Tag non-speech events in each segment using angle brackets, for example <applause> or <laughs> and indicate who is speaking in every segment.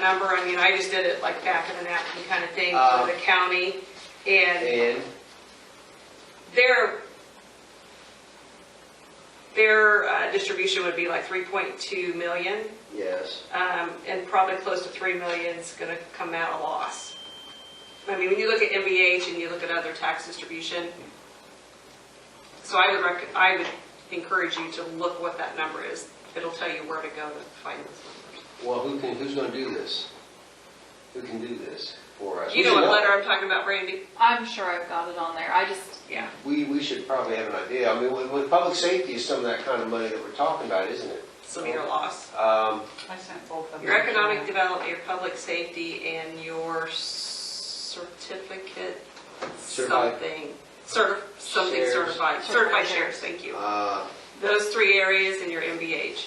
Speaker 1: number, I mean, I just did it like back of the napkin kind of thing
Speaker 2: Uh.
Speaker 1: for the county. And
Speaker 2: And
Speaker 1: their, their uh, distribution would be like 3.2 million,
Speaker 2: yes,
Speaker 1: um, and probably close to 3 million is gonna come out a loss. I mean, when you look at MBH and you look at other tax distribution, so I would rec, I would encourage you to look what that number is. It'll tell you where to go to find those numbers.
Speaker 2: well, who can, who's going to do this? Who can do this for us?
Speaker 1: You know what letter I'm talking about, Randy?
Speaker 3: I'm sure I've got it on there. I just,
Speaker 1: Yeah.
Speaker 2: We, we should probably have an idea. I mean, with, with public safety is some of that kind of money that we're talking about, isn't it?
Speaker 1: Severe loss.
Speaker 2: Um,
Speaker 4: I sent both of them.
Speaker 1: Your economic development, your public safety, and your certificate,
Speaker 2: Certified.
Speaker 1: something, certi, something
Speaker 2: Shares.
Speaker 1: certified, certified shares, thank you.
Speaker 2: uh,
Speaker 1: Those three areas and your MBH.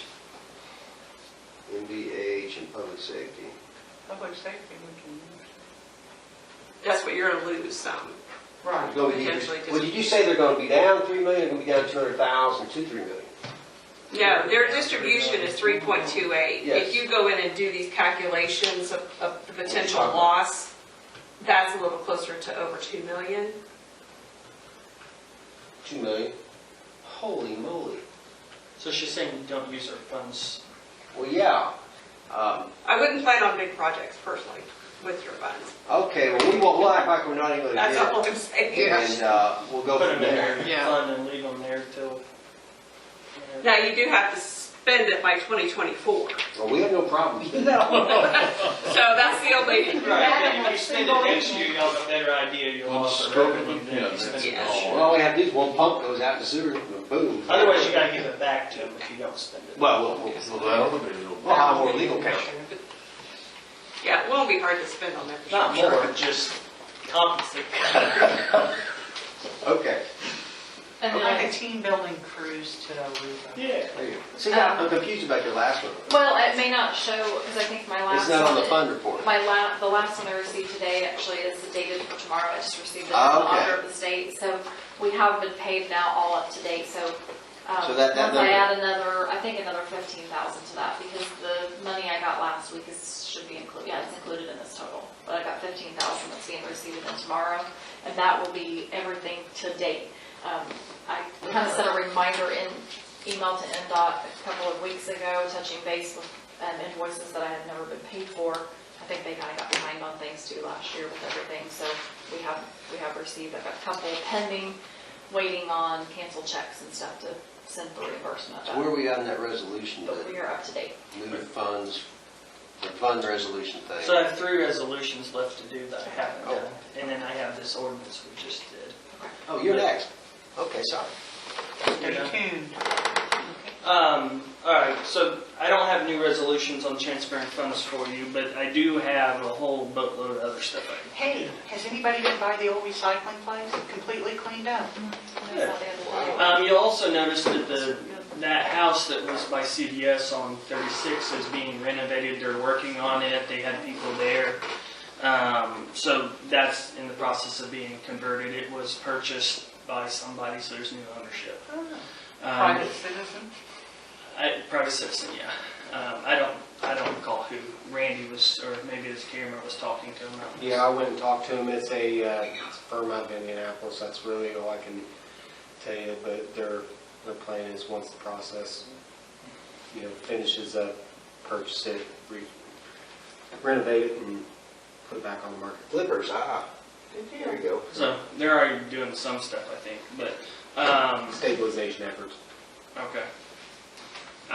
Speaker 2: MVH and public safety.
Speaker 4: Public safety we can use.
Speaker 1: That's what you're gonna lose some.
Speaker 2: It's
Speaker 4: Right.
Speaker 2: gonna be-
Speaker 1: Potentially, 'cause-
Speaker 2: Well, did you say they're going to be down 3 million, they're going to be down 200,000, 2, 3 million?
Speaker 1: No, their distribution is three point two eight.
Speaker 2: Yes.
Speaker 1: If you go in and do these calculations of, of the potential
Speaker 2: Okay.
Speaker 1: loss, that's a little closer to over two million.
Speaker 2: 2 million? Holy moly.
Speaker 5: So she's saying don't use our funds.
Speaker 2: Well, yeah. Um,
Speaker 1: I wouldn't plan on big projects personally with your funds.
Speaker 2: Okay, well, we won't, we'll act like we're not even going to
Speaker 1: That's all
Speaker 2: do
Speaker 1: I'm saying.
Speaker 2: it. And uh, we'll go
Speaker 5: Put
Speaker 2: from
Speaker 5: them in
Speaker 2: there.
Speaker 5: our
Speaker 4: Yeah.
Speaker 5: fund and leave them there till.
Speaker 1: Now, you do have to spend it by 2024.
Speaker 2: Well, we have no problem.
Speaker 5: <laughs>
Speaker 1: So that's the only,
Speaker 5: Right, and when you spend it next year, you'll have a better idea, you'll
Speaker 6: Well,
Speaker 5: have a
Speaker 6: stroke of
Speaker 5: revenue
Speaker 6: a
Speaker 5: than you
Speaker 6: pen,
Speaker 5: spend it
Speaker 1: that's
Speaker 5: this
Speaker 6: all.
Speaker 2: Well,
Speaker 5: year.
Speaker 2: all we have to do is one pump goes out in the sewer, and boom.
Speaker 5: Otherwise, you gotta give it back to them if you don't spend it.
Speaker 2: Well, we'll, we'll,
Speaker 6: Well, that'll be a little.
Speaker 2: we'll hire more legal counsel.
Speaker 1: yeah, it won't be hard to spend on that. for
Speaker 5: Not
Speaker 1: sure.
Speaker 5: more, just compensate.
Speaker 2: Okay,
Speaker 3: and then
Speaker 4: Like a
Speaker 3: I,
Speaker 4: team building cruise to Aruba.
Speaker 5: Yeah.
Speaker 2: there you go. See, now, I'm confused about your last one.
Speaker 3: well, it may not show, because I think my last.
Speaker 2: It's not on the
Speaker 3: one-
Speaker 2: fund report.
Speaker 3: My la, the last one I received today actually is dated for tomorrow. I just received it from the
Speaker 2: Ah, okay.
Speaker 3: auditor of the state. So we have been paid now all up to date, so. um,
Speaker 2: So that- that
Speaker 3: Once I
Speaker 2: number-
Speaker 3: add another, I think another fifteen thousand to that, because the money I got last week is, should be included, yeah, it's included in this total. But I got fifteen thousand that's being received in tomorrow, and that will be everything to date. Um, I kind of sent a reminder in email to NDOT a couple of weeks ago, touching base with um, invoices that I had never been paid for. I think they kind of got behind on things too last year with everything, so we have, we have received, I've got a couple pending, waiting on canceled checks and stuff to send for reimbursement.
Speaker 2: So where are we on that resolution,
Speaker 3: But we
Speaker 2: the
Speaker 3: are up to date.
Speaker 2: moving funds, the fund resolution thing?
Speaker 5: So I have three resolutions left to do that I haven't done, and then I have this ordinance we just did.
Speaker 2: Oh, you're next. Okay, sorry.
Speaker 4: Stay tuned.
Speaker 5: Um, all right, so I don't have new resolutions on transparent funds for you, but I do have a whole boatload of other stuff I can
Speaker 4: Hey, has anybody been by the old recycling place? Completely cleaned up.
Speaker 3: I saw the other day.
Speaker 5: Um, you'll also notice that the, that house that was by CVS on 36 is being renovated, they're working on it, they had people there. Um, so that's in the process of being converted, it was purchased by somebody, so there's new ownership. Um,
Speaker 4: Oh. Private citizen.
Speaker 5: I, private citizen, yeah. Um, I don't, I don't recall who Randy was, or maybe his camera was talking to him. I don't-
Speaker 7: Yeah, I went and talked to him. It's a uh, firm out of Indianapolis. That's really all I can tell you. But their, their plan is once the process, you know, finishes up, purchase it, re- renovate it and put it back on the market.
Speaker 2: Flippers, ah, there you go.
Speaker 5: So they're already doing some stuff, I think, but, um,
Speaker 7: Stabilization efforts.
Speaker 5: Okay.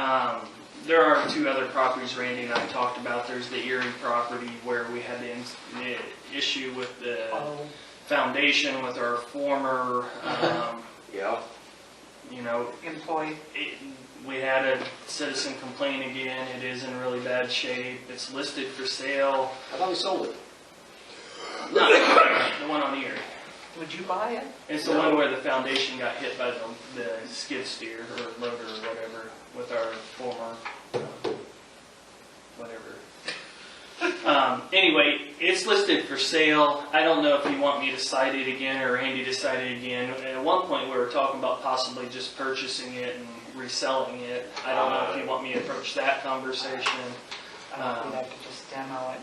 Speaker 5: Um, there are two other properties Randy and I talked about. There's the Erie property where we had the, ins- the issue with the
Speaker 4: Oh,
Speaker 5: foundation with our former, um,
Speaker 2: Yeah,
Speaker 5: you know,
Speaker 4: employee.
Speaker 5: it, we had a citizen complain again. It is in really bad shape. It's listed for sale.
Speaker 2: I thought we sold it.
Speaker 5: Not the one on Erie.
Speaker 4: Would you buy it?
Speaker 5: It's the one where the foundation got hit by the, the skid steer or rotor or whatever with our former, um, whatever. Um, anyway, it's listed for sale. I don't know if you want me to cite it again or Andy to cite it again. At one point, we were talking about possibly just purchasing it and reselling it. I don't know if you want me to approach that conversation.
Speaker 4: I don't think I could just demo it